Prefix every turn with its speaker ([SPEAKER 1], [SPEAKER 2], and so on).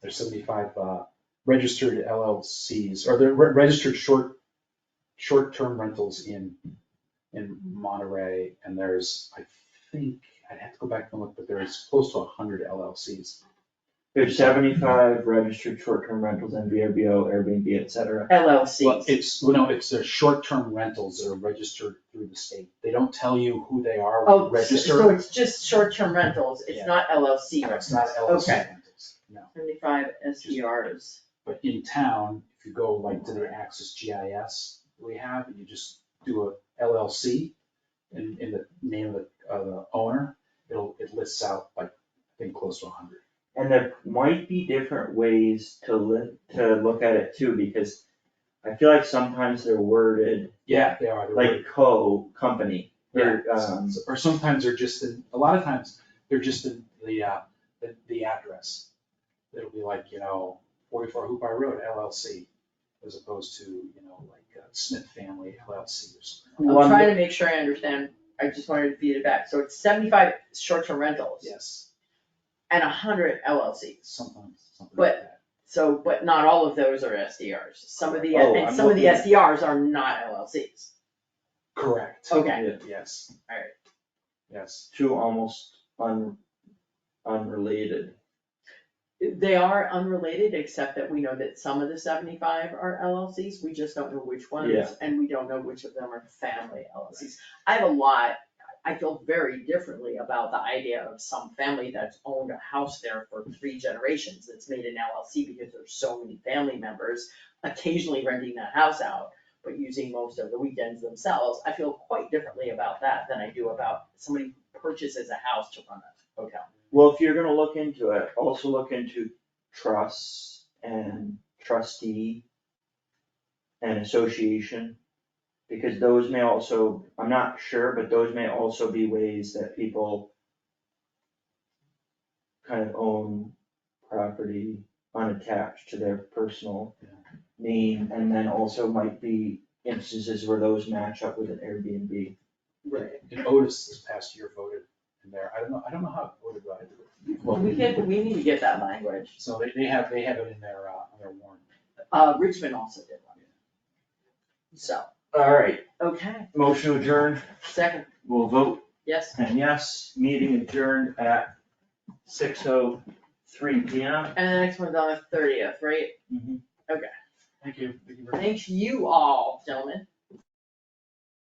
[SPEAKER 1] there's seventy-five, uh, registered LLCs, or the re- registered short, short-term rentals in, in Monterey, and there's, I think, I'd have to go back and look, but there's close to a hundred LLCs.
[SPEAKER 2] There's seventy-five registered short-term rentals in VRBO, Airbnb, et cetera.
[SPEAKER 1] Well,
[SPEAKER 3] LLCs.
[SPEAKER 1] it's, well, no, it's their short-term rentals that are registered through the state, they don't tell you who they are when you
[SPEAKER 3] Oh, so- so
[SPEAKER 1] register,
[SPEAKER 3] it's just short-term rentals,
[SPEAKER 1] Yeah.
[SPEAKER 3] it's not LLC
[SPEAKER 1] it's
[SPEAKER 3] rentals,
[SPEAKER 1] not LLC
[SPEAKER 3] okay.
[SPEAKER 1] rentals, no.
[SPEAKER 3] Seventy-five SDRs.
[SPEAKER 1] But in town, if you go like to the Axis GIS we have, and you just do a LLC in, in the name of the, of the owner, it'll, it lists out like, I think, close to a hundred.
[SPEAKER 2] And there might be different ways to li- to look at it too, because I feel like sometimes they're worded
[SPEAKER 1] Yeah, they are, they're really-
[SPEAKER 2] like co-company. or,
[SPEAKER 1] yeah,
[SPEAKER 2] um,
[SPEAKER 1] s- Or sometimes they're just in, a lot of times, they're just in the, uh, the, the address. It'll be like, you know, forty-four Hoop Hoopi Road LLC, as opposed to, you know, like uh, Smith Family LLC or something.
[SPEAKER 3] I'm
[SPEAKER 2] One-
[SPEAKER 3] trying to make sure I understand, I just wanted to feed it back, so it's seventy-five short-term rentals
[SPEAKER 1] Yes,
[SPEAKER 3] and hundred LLCs.
[SPEAKER 1] something, something like
[SPEAKER 3] But-
[SPEAKER 1] that.
[SPEAKER 3] So, but not all of those are SDRs, some of the,
[SPEAKER 2] Oh,
[SPEAKER 3] and
[SPEAKER 2] I'm
[SPEAKER 3] some of the
[SPEAKER 2] looking-
[SPEAKER 3] SDRs are not LLCs,
[SPEAKER 1] Correct.
[SPEAKER 3] okay,
[SPEAKER 1] Yes.
[SPEAKER 3] Alright.
[SPEAKER 1] Yes.
[SPEAKER 2] Two almost un- unrelated.
[SPEAKER 3] they are unrelated, except that we know that some of the seventy-five are LLCs, we just don't know which
[SPEAKER 2] Yeah.
[SPEAKER 3] ones, and we don't know which of them are family LLCs. I have a lot, I feel very differently about the idea of some family that's owned a house there for three generations, that's made an LLC because there's so many family members occasionally renting that house out, but using most of the weekends themselves, I feel quite differently about that than I do about somebody who purchases a house to run a hotel.
[SPEAKER 2] Well, if you're gonna look into it, also look into trusts and trustee and association. Because those may also, I'm not sure, but those may also be ways that people kind of own property unattached to their personal
[SPEAKER 1] Yeah.
[SPEAKER 2] name, and then also might be instances where those match up with an Airbnb.
[SPEAKER 1] Right. And Otis this past year voted in there. I don't know, I don't know how it voted, but it- well,
[SPEAKER 3] We get, we need to get that language.
[SPEAKER 1] so they, they have, they have it in their, uh, on their warrant.
[SPEAKER 3] Uh, Richmond also did one. So,
[SPEAKER 2] Alright,
[SPEAKER 3] okay,
[SPEAKER 2] motion adjourned,
[SPEAKER 3] second,
[SPEAKER 2] we'll vote
[SPEAKER 3] yes,
[SPEAKER 2] And yes, meeting adjourned at six oh three P M.
[SPEAKER 3] and the next one's on the thirtieth, right?
[SPEAKER 1] Thank you. Thank you very much.
[SPEAKER 3] Thank you all, gentlemen.